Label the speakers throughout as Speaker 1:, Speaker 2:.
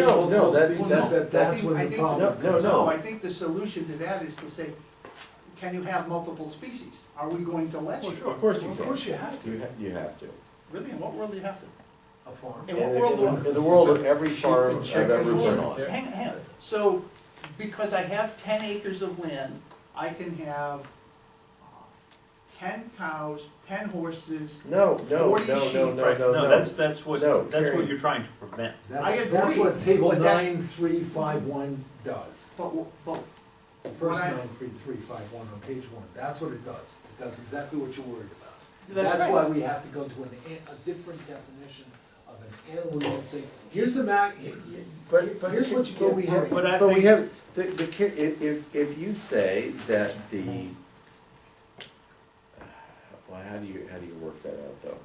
Speaker 1: No, no, that-
Speaker 2: Well,
Speaker 1: that's,
Speaker 2: no,
Speaker 1: that-
Speaker 2: I
Speaker 1: that's
Speaker 2: think-
Speaker 1: when
Speaker 2: I
Speaker 1: the
Speaker 2: think-
Speaker 1: problem comes
Speaker 2: No,
Speaker 1: up.
Speaker 2: I think the solution to that is to say, can you have multiple species? Are we going to let you?
Speaker 3: Of course you
Speaker 1: Of
Speaker 3: can.
Speaker 1: course you have to.
Speaker 3: You, ha- you have to.
Speaker 2: Really, in what world do you have to?
Speaker 1: A farm.
Speaker 2: In what
Speaker 3: In
Speaker 2: world?
Speaker 3: the-
Speaker 2: do-
Speaker 3: in the world of every
Speaker 1: Chicken,
Speaker 3: farm I've
Speaker 1: chicken,
Speaker 3: ever been
Speaker 1: chicken.
Speaker 3: on.
Speaker 1: Yeah.
Speaker 2: Hang, hang, on. so, because I have ten acres of land, I can have uh, ten cows, ten horses.
Speaker 3: No, no,
Speaker 2: Forty
Speaker 3: no, no,
Speaker 2: sheep.
Speaker 3: no,
Speaker 4: Right,
Speaker 3: no,
Speaker 4: no,
Speaker 3: no.
Speaker 4: that's, that's what,
Speaker 3: No.
Speaker 4: that's what you're trying to prevent.
Speaker 2: I
Speaker 1: That's, that's
Speaker 2: agree,
Speaker 1: what table
Speaker 2: but that's-
Speaker 1: nine, three, five, one does.
Speaker 2: But, w- but
Speaker 1: The First
Speaker 2: When I-
Speaker 1: nine, three, three, five, one on page one, that's what it does. It does exactly what you're worried about.
Speaker 2: That's
Speaker 1: That's why
Speaker 2: right.
Speaker 1: we have to go to an, an- a different definition of an animal and say, here's the ma, he- he-
Speaker 3: But, but.
Speaker 1: Here's what you
Speaker 3: but
Speaker 1: get
Speaker 3: we
Speaker 1: for
Speaker 3: have-
Speaker 1: it.
Speaker 4: But I
Speaker 3: But we
Speaker 4: think-
Speaker 3: have, the, the, ca- if, if, if you say that the, well, how do you, how do you work that out though?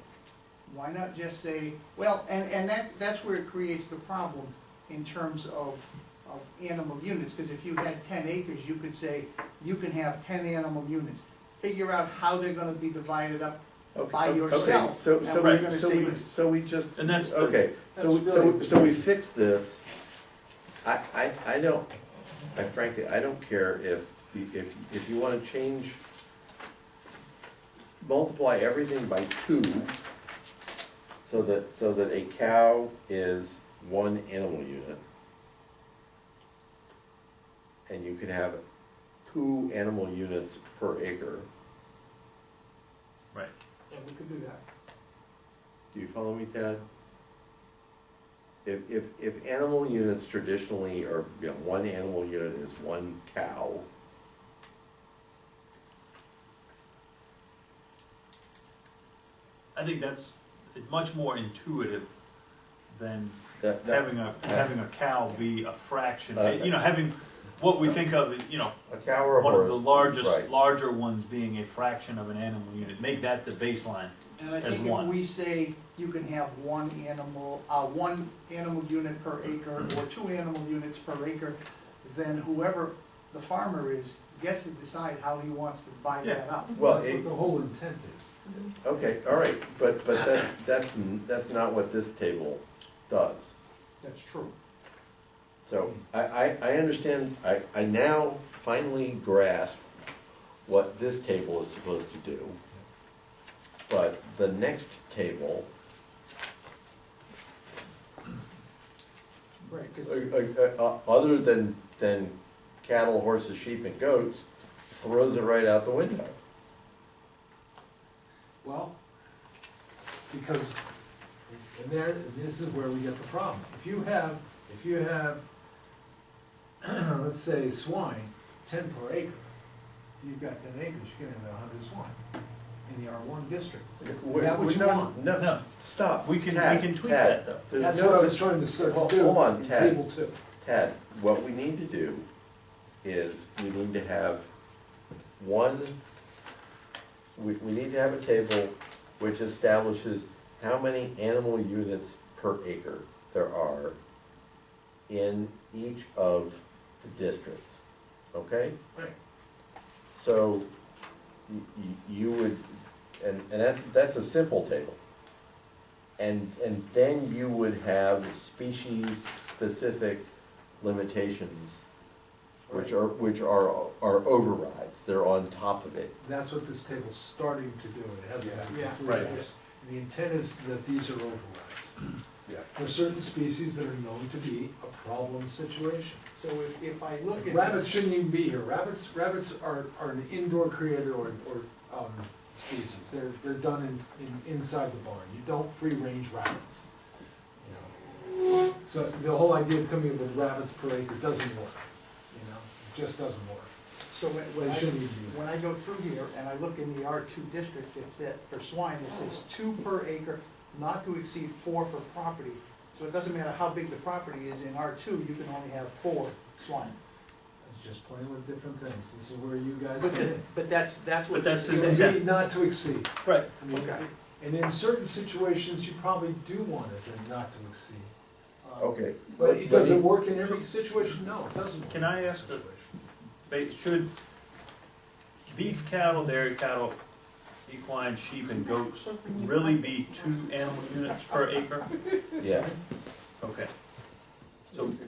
Speaker 2: Why not just say, well, and, and that, that's where it creates the problem in terms of, of animal units, because if you had ten acres, you could say, you can have ten animal units. Figure out how they're gonna be divided up,
Speaker 3: Okay,
Speaker 2: By
Speaker 3: okay,
Speaker 2: yourself,
Speaker 3: So,
Speaker 2: and
Speaker 3: so
Speaker 2: we're
Speaker 3: we,
Speaker 2: gonna
Speaker 3: so
Speaker 2: see-
Speaker 3: we, so we just.
Speaker 4: And that's the-
Speaker 3: Okay, so, we-
Speaker 2: That's
Speaker 3: so,
Speaker 2: really-
Speaker 3: so we fix this. I, I, I don't, I frankly, I don't care if, you- if, if you wanna change, multiply everything by two, so that, so that a cow is one animal unit. And you could have two animal units per acre.
Speaker 4: Right.
Speaker 2: and we could do that.
Speaker 3: Do you follow me, Ted? If, if, if animal units traditionally are, you know, one animal unit is one cow.
Speaker 4: I think that's much more intuitive than
Speaker 3: That, that,
Speaker 4: having a, having a cow be a fraction,
Speaker 3: Uh,
Speaker 4: you know, having what we think of, you know,
Speaker 3: a cow or a
Speaker 4: one
Speaker 3: horse.
Speaker 4: of the largest,
Speaker 3: right.
Speaker 4: larger ones being a fraction of an animal unit, make that the baseline.
Speaker 2: And I
Speaker 4: As
Speaker 2: think if
Speaker 4: one.
Speaker 2: we say, you can have one animal, uh, one animal unit per acre, or two animal units per acre, then whoever the farmer is gets to decide how he wants to divide that up.
Speaker 3: Well,
Speaker 1: That's
Speaker 3: it-
Speaker 1: what the whole intent is.
Speaker 3: Okay, all right, but, but that's, that's, that's not what this table does.
Speaker 2: That's true.
Speaker 3: So I, I, I understand, I, I now finally grasp what this table is supposed to do. But the next table
Speaker 2: Right, 'cause-
Speaker 3: Uh, uh, uh, other than, than cattle, horses, sheep, and goats, throws it right out the window.
Speaker 1: Well, because, and there, and this is where we get the problem. If you have, if you have, let's say swine, ten per acre, you've got ten acres, you can have a hundred swine in the R one district. Is that what
Speaker 3: We're
Speaker 1: you
Speaker 3: not-
Speaker 1: want?
Speaker 3: No,
Speaker 4: No.
Speaker 3: stop.
Speaker 4: We can- we
Speaker 3: Tad,
Speaker 4: can tweak
Speaker 3: Tad,
Speaker 4: that, though.
Speaker 3: there's
Speaker 1: That's
Speaker 3: no-
Speaker 1: what I was trying to start
Speaker 3: Hold-
Speaker 1: to do
Speaker 3: hold on,
Speaker 1: in
Speaker 3: Ted.
Speaker 1: table two.
Speaker 3: Tad, what we need to do is, we need to have one, we, we need to have a table which establishes how many animal units per acre there are in each of the districts, okay?
Speaker 1: Right.
Speaker 3: So y- y- you would, and, and that's, that's a simple table. And, and then you would have species-specific limitations, which are, which are, are overrides, they're on top of it.
Speaker 1: That's what this table's starting to do, and it hasn't been
Speaker 2: Yeah.
Speaker 1: completed.
Speaker 4: Right.
Speaker 1: yet. The intent is that these are overrides.
Speaker 3: Yeah.
Speaker 1: For certain species that are known to be a problem situation.
Speaker 2: So if, if I look at.
Speaker 1: Rabbits shouldn't even be here, rabbits, rabbits are, are an indoor creator or, or, um, species, they're, they're done in, in, inside the barn, you don't free range rabbits. you know. So the whole idea of coming up with rabbits per acre doesn't work, you know, it just doesn't work.
Speaker 2: So when, when
Speaker 1: They
Speaker 2: I,
Speaker 1: shouldn't even be there.
Speaker 2: when I go through here and I look in the R two district, it's that, for swine, it says two per acre, not to exceed four for property. So it doesn't matter how big the property is, in R two, you can only have four swine.
Speaker 1: It's just playing with different things, this is where you guys.
Speaker 2: But,
Speaker 1: come
Speaker 2: the-
Speaker 1: in.
Speaker 2: but that's, that's what.
Speaker 4: But that's
Speaker 2: this is.
Speaker 4: his
Speaker 1: It's
Speaker 4: intent.
Speaker 1: indeed not to exceed.
Speaker 4: Right.
Speaker 1: I mean,
Speaker 2: Okay.
Speaker 1: And in certain situations, you probably do want it to not to exceed. Um,
Speaker 3: Okay.
Speaker 1: But it doesn't work in every situation? No, it doesn't work.
Speaker 4: Can
Speaker 1: in
Speaker 4: I
Speaker 1: every
Speaker 4: ask a-
Speaker 1: situation.
Speaker 4: Ba- Should beef cattle, dairy cattle, equine, sheep, and goats really be two animal units per acre?
Speaker 3: Yes,
Speaker 4: Okay. So